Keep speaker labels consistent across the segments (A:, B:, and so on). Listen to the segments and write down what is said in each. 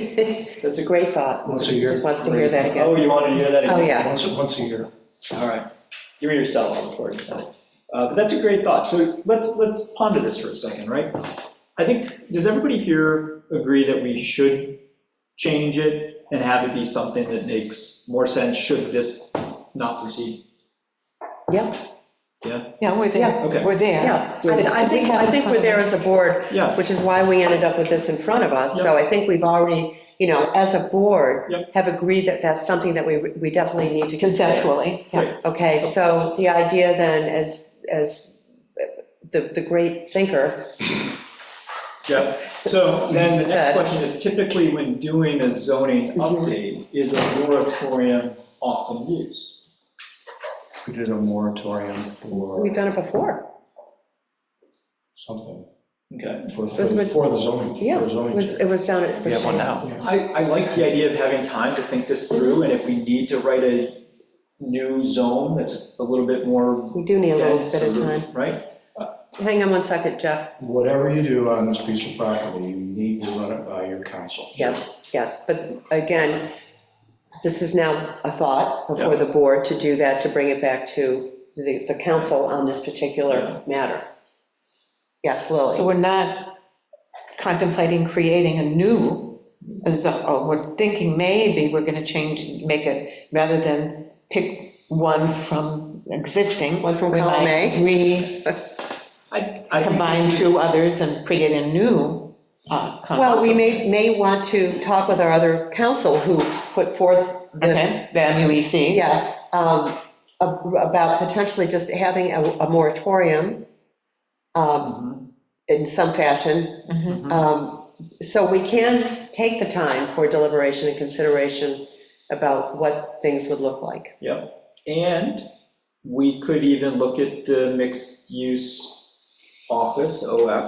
A: It was a great thought.
B: Once a year.
A: Just wants to hear that again.
C: Oh, you want to hear that again?
A: Oh, yeah.
B: Once, once a year.
C: All right, give me your cell phone for it. Uh, But that's a great thought, so let's, let's ponder this for a second, right? I think, does everybody here agree that we should change it and have it be something that makes more sense, should this not proceed?
A: Yeah,
D: Yeah,
A: Oh.
D: we're
A: Yeah.
D: there,
C: Okay.
D: we're there.
A: yeah. I mean, I
D: Does-
A: think, I think we're there as a board,
C: Yeah,
A: which is why we ended up with this in front of us. So I think we've already, you know, as a board,
C: Yep.
A: have agreed that that's something that we, we definitely need to consider.
D: Conceptually, yeah.
A: Okay, so the idea then, as, as the, the great thinker,
C: Yep, so then the next
A: Said.
C: question is typically when doing a zoning update, is a moratorium often used?
B: We did a moratorium
A: we've
B: for
A: done it before.
B: something,
C: Okay.
B: for,
A: was
B: for
A: when-
B: for the zoning,
A: Yeah,
B: for the
A: It
B: zoning.
A: was, it
B: check.
A: was down at.
E: We have one now.
C: I, I like the idea of having time to think this through, and if we need to write a new zone that's a little bit more
A: We do need a little
C: dense,
A: bit of time.
C: or- right?
A: Hang on one second, Jeff.
B: Whatever you do on this piece of property, you need to run it by your council.
A: Yes, yes, but again, this is now a thought before the board to do that, to bring it back to the, the council on this particular matter. Yes,
D: So
A: Lily?
D: we're not contemplating creating a new, zo- oh, we're thinking maybe we're gonna change, make it, rather than pick one from existing.
A: One from
D: we
A: column
D: might
A: A.
C: I, I think
D: Recombine
C: this is-
D: two others and create a new uh, concept.
A: Well, we may, may want to talk with our other council who put forth this,
D: Okay, the E MUEC.
A: yes, um, ab- about potentially just having a a moratorium um,
C: Mhm.
A: in some fashion,
D: Mhm.
A: Um, So we can take the time for deliberation and consideration about what things would look like.
C: Yep, and we could even look at the mixed-use office, OF,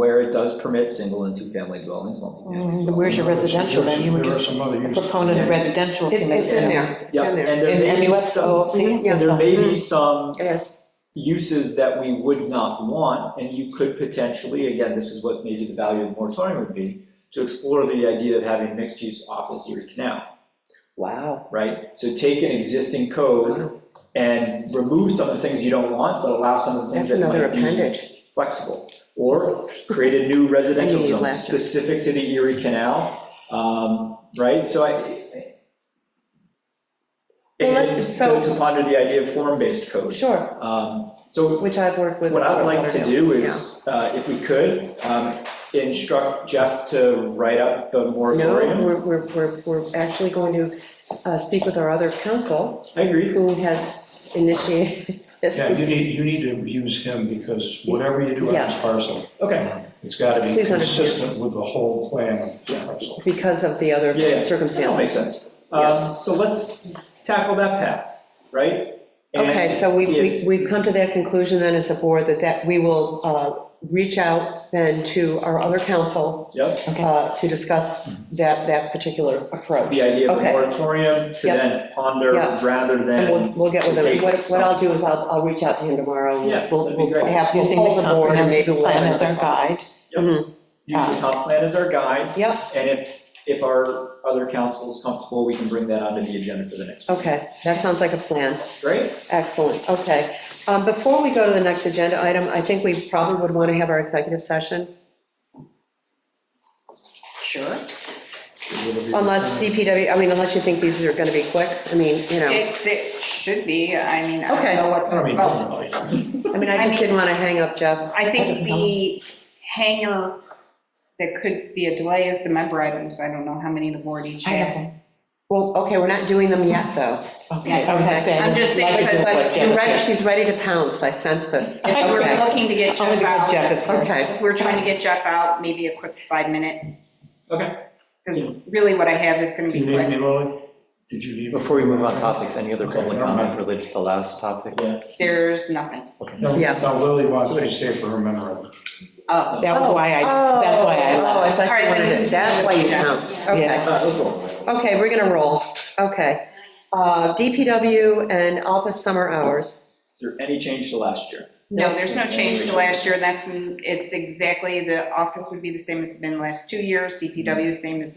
C: where it does permit single and two-family dwellings,
A: Mm-hmm.
C: multifamily.
D: Mm, Where's your residential, then you were
B: There are
D: just
B: some other
D: a
B: uses.
D: proponent of residential.
A: It- It's in there, it's
C: Yeah,
A: in there.
C: and there
D: In
C: may be
D: MUS
C: some,
D: OFC?
C: and there may be some
A: Yes,
C: uses that we would not want, and you could potentially, again, this is what maybe the value of the moratorium would be, to explore the idea of having mixed-use office Erie Canal,
A: wow.
C: right? So take an existing code and remove some of the things you don't want, but allow some of the things
A: That's
C: that
A: another
C: might be
A: appendage.
C: flexible. Or create a new residential
A: I need
C: zone
A: laughter.
C: specific to the Erie Canal, um, right? So I.
A: Well, let-
C: And
A: so-
C: to ponder the idea of form-based code.
A: Sure,
C: Um, So
A: which I've worked with.
C: what I'd like to do
A: Yeah.
C: is, uh, if we could, um, instruct Jeff to write up the
A: No,
C: moratorium.
A: we're, we're, we're we're actually going to uh, speak with our other council
C: I agree.
A: who has initiated this.
B: Yeah, you need, you need to use him, because whatever you do on this
A: Yeah.
B: parcel,
C: Okay.
B: it's gotta be
A: Please understand.
B: consistent with the whole plan of this
C: Yeah.
B: parcel.
A: Because of the other
C: Yeah, yeah. That makes
A: circumstances.
C: sense. Um, So let's tackle that path, right? And
A: Okay, so we, we-
C: if-
A: we've come to that conclusion then as a board that that, we will uh, reach out then to our other council
C: Yep,
A: uh, to discuss that, that particular approach.
C: Mm-hmm. the idea of a
A: Okay.
C: moratorium to
A: Yep.
C: then ponder
A: Yeah.
C: rather
A: And we'll,
C: than,
A: we'll get with
C: to
A: him.
C: take
A: What what I'll do is I'll, I'll reach out to him tomorrow. and
C: Yeah, that'd
A: We'll,
C: be
A: we'll
C: great.
A: have, we'll
D: Using
A: pull
D: the
A: the board and maybe
D: comprehensive
A: we'll have
D: plan as our
A: another.
D: guide.
C: use the comp plan as our guide.
A: Yep,
C: And if, if our other council is comfortable, we can bring that onto the agenda for the next. one.
A: okay, that sounds like a plan.
C: Great?
A: Excellent, okay. Um, Before we go to the next agenda item, I think we probably would want to have our executive session.
D: Sure.
A: Unless DPW, I mean, unless you think these are going to be quick, I mean, you know,
F: It, it should be, I mean, I
A: Okay.
F: don't know
B: I don't mean,
A: Oh.
F: what.
B: everybody.
A: I mean, I just didn't want to hang up Jeff.
F: I think the hanger that could be a delay is the member items. I don't know how many the board each
D: I
F: had.
D: have
A: Well, okay, we're not doing them yet, though.
D: one. Okay, I was
A: Okay.
D: just saying.
F: I'm just saying,
D: like
F: because
D: this,
F: like,
D: like
A: You're
D: Jennifer.
A: ready, she's ready to pounce, I sense this.
F: If we We're looking to get
D: Only
F: Jeff
D: because Jeff
F: out.
D: is here.
A: Okay,
F: If we're trying to get Jeff out, maybe a quick five minute.
C: Okay.
F: Because really what I have is going
B: Do
F: to
B: you
F: be
B: need me,
F: quick.
B: Lily? Did you need me?
E: Before we move on topics, any other public
B: Okay, no,
E: comment
B: no.
E: related to the last topic?
C: Yeah.
F: There's nothing.
B: No,
A: Yeah.
B: no, Lily wants me to stay for her memorial.
F: Oh,
D: That was why I, that's why I
A: Oh, I
D: left.
A: thought you wanted to, that's why you pounced, okay.
D: Yeah.
C: Uh, let's roll.
A: Okay, we're gonna roll, okay. Uh, DPW and office summer hours.
C: Is there any change to last year?
F: no, there's no change to last
B: Mm-hmm.
F: year. That's, it's exactly, the office would be the same as it's been the last two years. DPW is same as